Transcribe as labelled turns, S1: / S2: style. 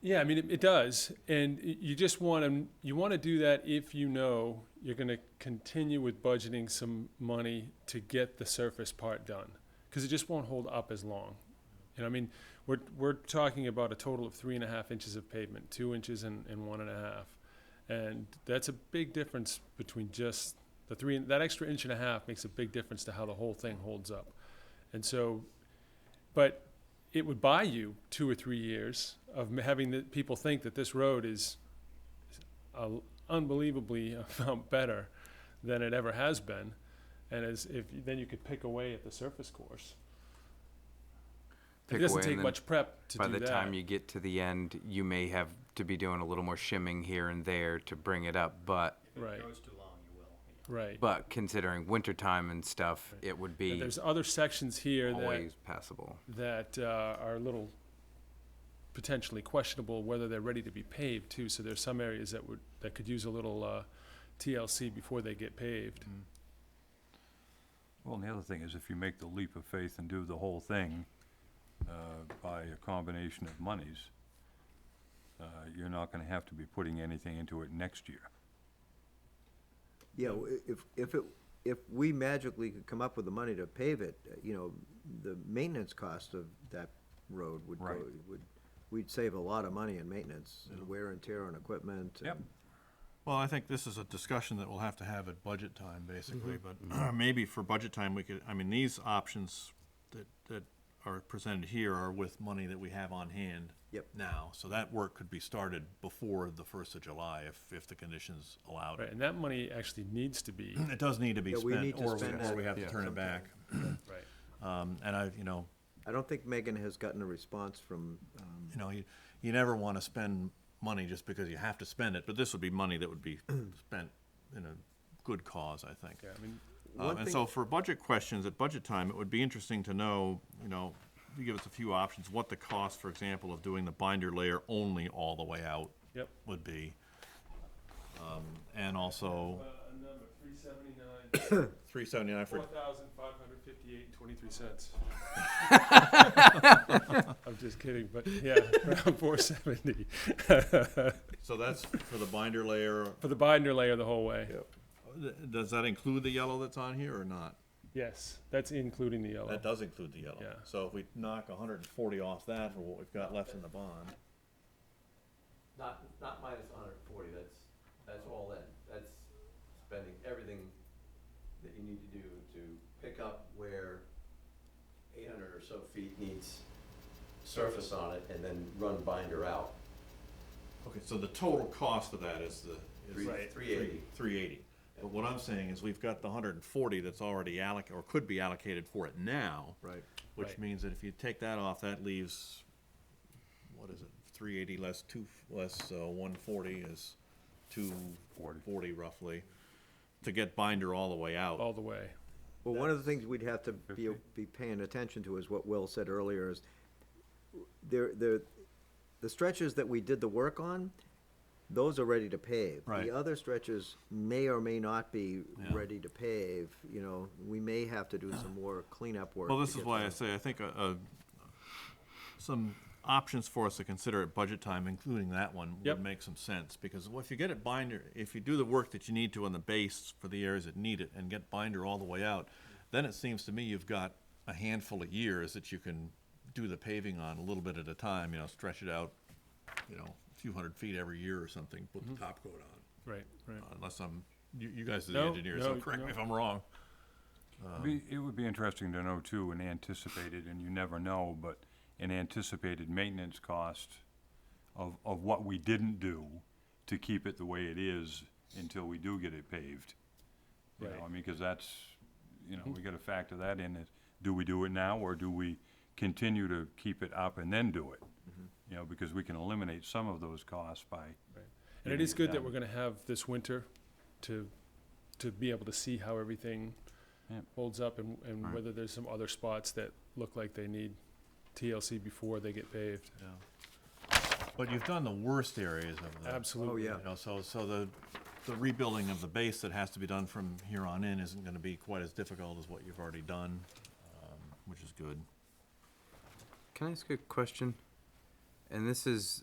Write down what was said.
S1: Yeah, I mean, it, it does, and y- you just want to, you want to do that if you know you're going to continue with budgeting some money to get the surface part done, because it just won't hold up as long. And I mean, we're, we're talking about a total of three and a half inches of pavement, two inches and, and one and a half. And that's a big difference between just the three, that extra inch and a half makes a big difference to how the whole thing holds up. And so, but it would buy you two or three years of m- having the people think that this road is a- unbelievably amount better than it ever has been, and as if then you could pick away at the surface course.
S2: Pick
S1: it doesn't
S2: away, and
S1: take
S2: then
S1: much prep to
S2: By
S1: do
S2: the
S1: that.
S2: time you get to the end, you may have to be doing a little more shimming here and there to bring it up, but,
S3: If
S1: Right.
S3: it goes too long, you will. you know.
S1: right.
S2: but considering wintertime and stuff, it would
S1: But
S2: be
S1: there's other sections here
S2: always passable.
S1: that that uh, are a little potentially questionable whether they're ready to be paved too. So there's some areas that would that could use a little uh, TLC before they get paved.
S4: Well, and the other thing is if you make the leap of faith and do the whole thing, uh, by a combination of monies, uh, you're not gonna have to be putting anything into it next year.
S5: Yeah, w- if, if it, if we magically could come up with the money to pave it, uh, you know, the maintenance cost of that road would go,
S4: Right.
S5: would, we'd save a lot of money in maintenance and wear and tear on equipment.
S4: Yep.
S5: and-
S6: Well, I think this is a discussion that we'll have to have at budget time, basically,
S5: Mm-hmm.
S6: but maybe for budget time, we could, I mean, these options that, that are presented here are with money that we have on hand.
S5: Yep.
S6: Now, so that work could be started before the first of July if, if the conditions allowed
S1: Right,
S6: it.
S1: and that money actually needs to be,
S6: It does need to be
S5: Yeah, we need
S6: spent,
S5: to
S6: or,
S5: spend
S6: or we
S5: that
S6: have to turn it back.
S1: right,
S6: Um, and I, you know,
S5: I don't think Megan has gotten a response from, um,
S6: you know, you, you never want to spend money just because you have to spend it, but this would be money that would be spent in a good cause, I think.
S1: yeah, I mean,
S5: One
S6: Um, and
S5: thing-
S6: so for budget questions at budget time, it would be interesting to know, you know, you give us a few options, what the cost, for example, of doing the binder layer only all the way out
S1: yep.
S6: would be. Um, and also,
S1: number, three seventy-nine,
S6: three seventy-nine for,
S1: four thousand five hundred fifty-eight and twenty-three cents. I'm just kidding, but yeah, around four seventy,
S6: so that's for the binder layer,
S1: for the binder layer the whole way.
S6: Th- does that include the yellow that's on here or not?
S1: Yes, that's including the yellow.
S6: That does include the yellow.
S1: Yeah.
S6: So if we knock hundred and forty off that for what we've got left in the bond.
S7: Not, not minus hundred and forty, that's, that's all in, that's spending everything that you need to do to pick up where eight hundred or so feet needs surface on it and then run binder out.
S6: Okay, so the total cost of that is the. is
S7: Three- Right. 380.
S6: Three eighty. But what I'm saying is we've got the hundred and forty that's already alloc, or could be allocated for it now.
S5: Right.
S6: Which
S1: Right.
S6: means that if you take that off, that leaves, what is it, three eighty less two, less, uh, one forty is two forty roughly. To get binder all the way out.
S1: All the way,
S5: well, one of the things we'd have to be, be paying attention to is what Will said earlier is there, there, the stretches that we did the work on, those are ready to pave.
S6: Right.
S5: The other stretches may or may not be ready to pave, you know, we may have to do some more cleanup work.
S6: Well,
S5: to
S6: this is
S5: get
S6: why I
S5: them.
S6: say I think uh, uh, some options for us to consider at budget time, including that one,
S1: Yep.
S6: would make some sense. Because well, if you get it binder, if you do the work that you need to on the base for the areas that need it and get binder all the way out, then it seems to me you've got a handful of years that you can do the paving on a little bit at a time, you know, stretch it out, you know, a few hundred feet every year or something, put
S1: Mm-hmm.
S6: the top coat on.
S1: right, right.
S6: Unless I'm, you, you guys are the
S1: No,
S6: engineers, so
S1: no,
S6: correct
S1: no.
S6: me if I'm wrong.
S4: Be, it would be interesting to know too, an anticipated, and you never know, but an anticipated maintenance cost of, of what we didn't do to keep it the way it is until we do get it paved. You know,
S1: Right.
S4: I mean, cause that's, you know, we gotta factor that in, is do we do it now, or do we continue to keep it up and then do it? You know, because we can eliminate some of those costs by,
S1: And it is good that
S4: Yeah.
S1: we're gonna have this winter to, to be able to see how everything
S4: Yeah.
S1: holds up and, and whether there's some other spots that look like they need TLC before they get paved.
S6: But you've done the worst areas of the.
S1: Absolutely.
S5: yeah.
S6: You know, so, so the, the rebuilding of the base that has to be done from here on in isn't gonna be quite as difficult as what you've already done, um, which is good.
S2: Can I ask a question? And this is